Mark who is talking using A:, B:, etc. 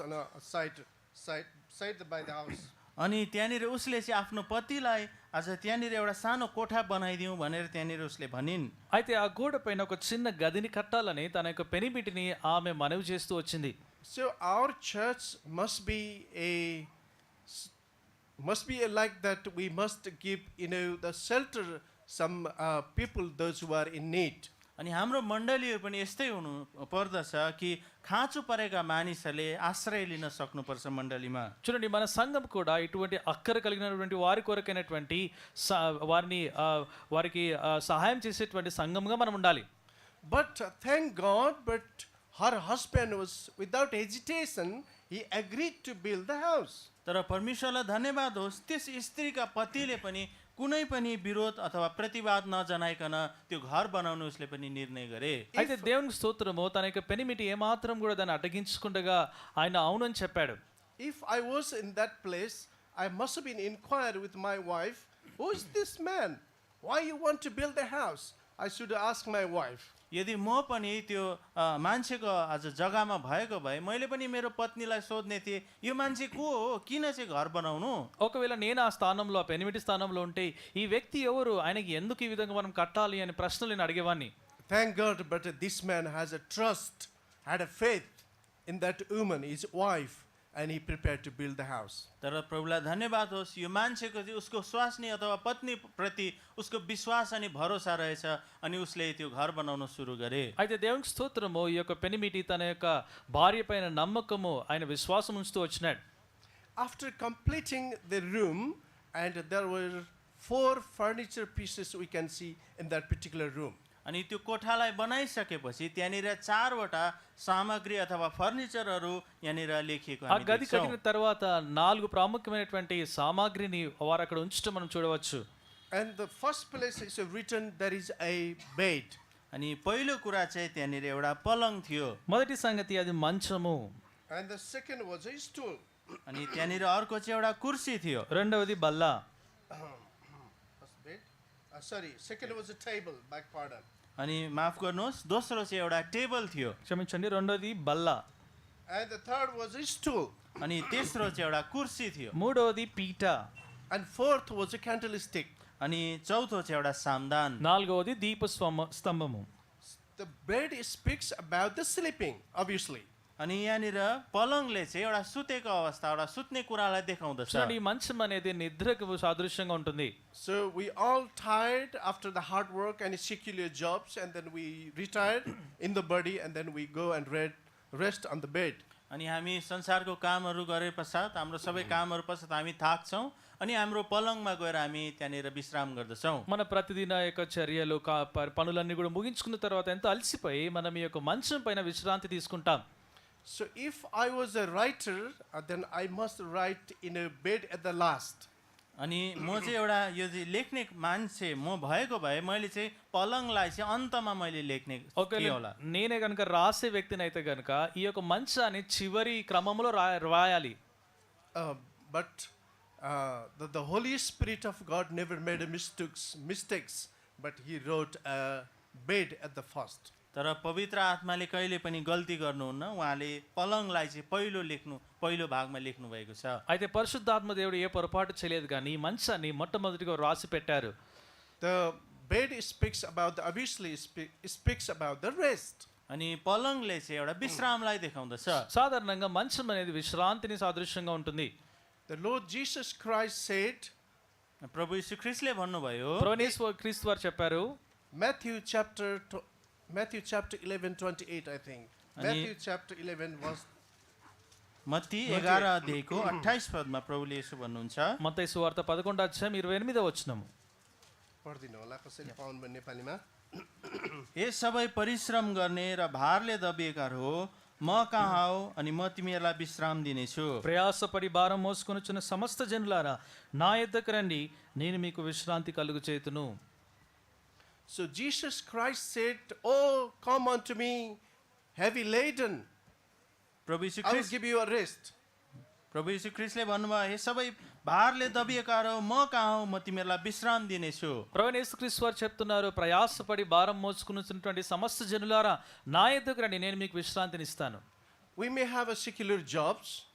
A: on a side, side, side by the house.
B: अनि त्यहाँनिर उसले चाहिँ आफ्नो पतिलाई आज त्यहाँनिर एउटा सानो कोठा बनाइदिउँ भनेर त्यहाँनिर उसले भनिन्
C: అయితే ఆ గోడ పైన ఒక చిన్న గదిని కట్టాలని తన యొక్క పెనిమిటిని ఆమె మనవి చేస్తూ వచ్చింది
A: So our church must be a must be like that. We must give you know the shelter some uh, people those who are in need.
B: अनि हाम्रो मण्डलीहरू पनि यस्तै हुनु पर्दछ कि खाँचो परेका मानिसहरूले आश्रय लिन सक्नुपर्छ मण्डलीमा
C: చూడండి మన సంఘం కూడా ఇటువంటి అక్కర కలిగినటువంటి వారి కొరకైనటువంటి స- వారిని ఆ, వారికి ఆ, సహాయం చేసేటువంటి సంఘంగా మనం ఉండాలి
A: But uh, thank God, but her husband was without hesitation. He agreed to build the house.
B: तर परमेश्वरलाई धन्यवाद होस् त्यस स्त्रीका पतिले पनि कुनै पनि विरोध अथवा प्रतिवाद नजनाइकन त्यो घर बनाउनु उसले पनि निर्णय गरे
C: అయితే దేవుని స్తోత్రము తన యొక్క పెనిమిటి ఏమాత్రం కూడా దాన్ని అడ్డగించకుండగా ఆయన అవునని చెప్పాడు
A: If I was in that place, I must have been inquired with my wife, who is this man? Why you want to build a house? I should ask my wife.
B: यदि म पनि त्यो अ, मान्छेको आज जग्गामा भएको भए मैले पनि मेरो पत्नीलाई सोध्ने थिएँ यो मान्छे को हो किन चाहिँ घर बनाउनु
C: ఒకవేళ నేను ఆ స్థానంలో ఆ పెనిమిటి స్థానంలో ఉంటే ఈ వ్యక్తి ఎవరు ఆయనకి ఎందుకు ఈ విధంగా మనం కట్టాలి అనే ప్రశ్నలు నేను అడిగేవాడిని
A: Thank God, but this man has a trust, had a faith in that woman, his wife, and he prepared to build the house.
B: तर प्रभुलाई धन्यवाद होस् यो मान्छेको चाहिँ उसको स्वास्नी अथवा पत्नीप्रति उसको विश्वास अनि भरोसा रहेछ अनि उसले त्यो घर बनाउन सुरु गरे
C: అయితే దేవునికి స్తోత్రము ఈ యొక్క పెనిమిటి తన యొక్క భార్య పైన నమ్మకము ఆయన విశ్వాసం ఉంచుతూ వచ్చినాడు
A: After completing the room, and there were four furniture pieces we can see in that particular room.
B: अनि त्यो कोठालाई बनाइसकेपछि त्यहाँनिर चारवटा सामग्री अथवा फर्निचरहरू यहाँनिर लेखिएको
C: ఆ
B: हामी
C: గది
B: देख्छौँ।
C: కట్టిన తర్వాత నాలుగు ప్రాముఖ్యమైనటువంటి సామాగ్రిని వారు అక్కడ ఉంచడం మనం చూడవచ్చు
A: And the first place is written there is a bed.
B: अनि पहिलो कुरा चाहिँ त्यहाँनिर एउटा पलङ थियो
C: మొదటి సంగతి అది మంచము
A: And the second was a stool.
B: अनि त्यहाँनिर अर्को चाहिँ एउटा कुर्सी थियो
C: రెండవది బల్ల
A: First bed. Uh, sorry, second was a table, back pardon.
B: अनि माफ गर्नुहोस् दोस्रो चाहिँ एउटा टेबल थियो
C: క్షమించండి రెండవది బల్ల
A: And the third was a stool.
B: अनि तेस्रो चाहिँ एउटा कुर्सी थियो
C: మూడవది పీట
A: And fourth was a candlestick.
B: अनि चौथो चाहिँ एउटा सामदान
C: నాలుగవది దీప స్వమ స్తంభము
A: The bed speaks about the sleeping, obviously.
B: अनि यहाँनिर पलङले चाहिँ एउटा सुतेको अवस्था एउटा सुत्ने कुरालाई देखाउँदछ
C: చూడండి ఈ మంచం అనేది నిద్రకు సాదృశ్యంగా ఉంటుంది
A: So we all tired after the hard work and secular jobs, and then we retire in the body, and then we go and read, rest on the bed.
B: अनि हामी संसारको कामहरू गरे पश्चात हाम्रो सबै कामहरू पश्चात हामी थाक्छौँ अनि हाम्रो पलङमा गएर हामी त्यहाँनिर विश्राम गर्दछौँ
C: మన ప్రతిదిన యొక్క చర్యలు కా- ప- పనులన్నీ కూడా ముగించుకున్న తర్వాత ఎంతో అలసిపోయి మనం ఈ యొక్క మంచం పైన విశ్రాంతి తీసుకుంటాం
A: So if I was a writer, uh, then I must write in a bed at the last.
B: अनि म चाहिँ एउटा यो चाहिँ लेख्ने मान्छे म भएको भए मैले चाहिँ पलङलाई चाहिँ अन्तमा मैले लेख्ने थिएँ
C: ఒకవేళ
B: होला
C: నేనే కనుక రాసే వ్యక్తిని అయితే కనుక ఈ యొక్క మంచాన్ని చివరి క్రమంలో రా రాయాలి
A: Uh, but uh, the, the Holy Spirit of God never made a mistakes, mistakes, but He wrote a bed at the first.
B: तर पवित्र आत्माले कहिले पनि गल्ती गर्नुहुन्न उहाँले पलङलाई चाहिँ पहिलो लेख्नु पहिलो भागमा लेख्नु भएको छ
C: అయితే పరిశుద్ధాత్మ దేవుడు ఏ పొరపాటు చేయలేదు కానీ ఈ మంచాన్ని మొట్టమొదటిగా రాసి పెట్టారు
A: The bed speaks about, the, obviously, spe- speaks about the rest.
B: अनि पलङले चाहिँ एउटा विश्रामलाई देखाउँदछ
C: సాధారణంగా మంచం అనేది విశ్రాంతిని సాదృశ్యంగా ఉంటుంది
A: The Lord Jesus Christ said,
B: प्रभु यीशु ख्रिस्टले भन्नुभयो
C: ప్రవణేశ్వర క్రీస్తు వారు చెప్పారు
A: Matthew chapter, tw- Matthew chapter 11, 28, I think. Matthew chapter 11, verse
B: Matthew एघार अध्यायको अठाइस पदमा प्रभुले यसो भन्नुहुन्छ
C: మత్తయి సువార్త పదకొండు అధ్యాయం ఇరవై ఎనిమిదో వచ్చినము
A: पढिदिनु होला कसरी पाउनु भयो नेपालीमा
B: ए सबै परिश्रम गर्ने र भारले दबिएका हो म कहाँ हो अनि म तिमीहरूलाई विश्राम दिनेछु
C: ప్రయాసపడి భారం మోసుకొనుచున్న సమస్త జనులారా నా ఎద్దకు రండి నేను మీకు విశ్రాంతి కలుగు చేతును
A: So Jesus Christ said, Oh, come unto me, heavy laden,
B: प्रभु यीशु
A: I will
B: Christ
A: give you a rest.
B: प्रभु यीशु ख्रिस्टले भन्नुभयो हे सबै भारले दबिएका हो म कहाँ हो म तिमीहरूलाई విశ్రాम दिनेछु
C: ప్రవణేశ్ క్రీస్తు వారు చెప్తున్నారు ప్రయాసపడి భారం మోసుకున్నటువంటి సమస్త జనులారా నా ఎద్దుకు రండి నేను మీకు విశ్రాంతిని ఇస్తాను
A: we may have a secular jobs